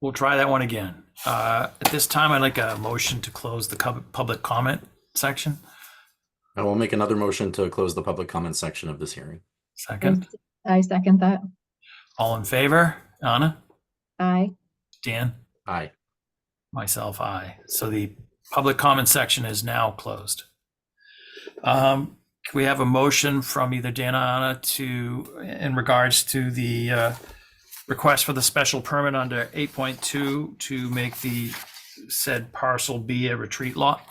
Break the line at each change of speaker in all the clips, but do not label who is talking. We'll try that one again. Uh, At this time, I'd like a motion to close the cub- public comment section.
I will make another motion to close the public comment section of this hearing.
Second,
I second that.
all in favor? Anna,
Aye.
Dan,
Aye.
myself, I. So the public comment section is now closed. Um, can we have a motion from either Dan or Anna to, in regards to the uh, request for the special permit under 8.2 to make the said parcel be a retreat lot?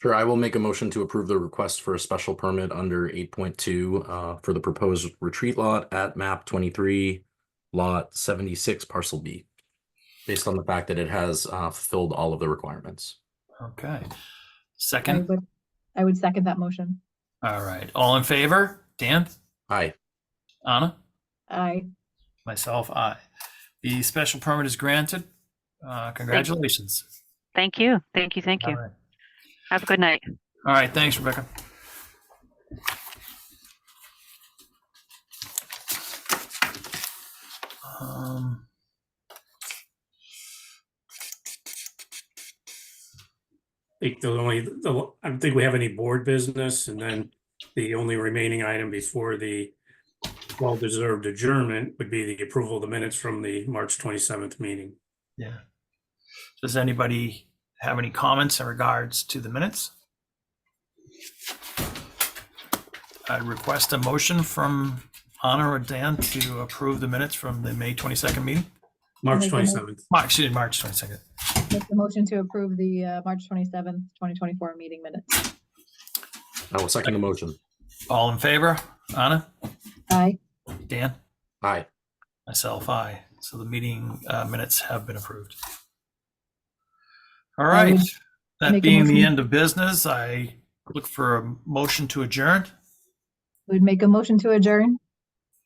Sure, I will make a motion to approve the request for a special permit under eight point two uh for the proposed retreat lot at map twenty-three lot seventy-six parcel B. Based on the fact that it has uh fulfilled all of the requirements.
Okay.
I
Second?
would, I would second that motion.
All right, all in favor? Dan,
Aye.
Anna,
Aye.
myself, I. The special permit is granted. Uh, congratulations.
Thank you. Thank you. Thank you.
All right.
Have a good night.
All right, thanks, Rebecca. Um,
think the only, the, I don't think we have any board business, and then the only remaining item before the well-deserved adjournment would be the approval of the minutes from the March twenty-seventh meeting.
yeah. Does anybody have any comments in regards to the minutes? I request a motion from Anna or Dan to approve the minutes from the May twenty-second meeting.
Make
March
a mo-
twenty-seventh.
March, excuse me, March twenty-second.
Make the motion to approve the uh, March twenty-seventh, twenty twenty-four meeting minutes.
I will second the motion.
All in favor? Anna,
Aye.
Dan,
Aye.
myself, I. So the meeting uh, minutes have been approved. All
I would
right. That
make a
being the
motion-
end of business, I look for a motion to adjourn.
Would make a motion to adjourn.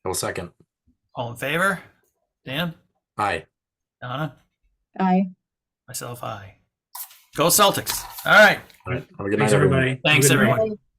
I will second.
All in favor? Dan,
Aye.
Anna,
Aye.
Uh-huh. myself, I. Go Celtics. All right.
All right. Have a good night,
Thanks, everybody. Have a
Thanks,
good night.
everyone.
Aye.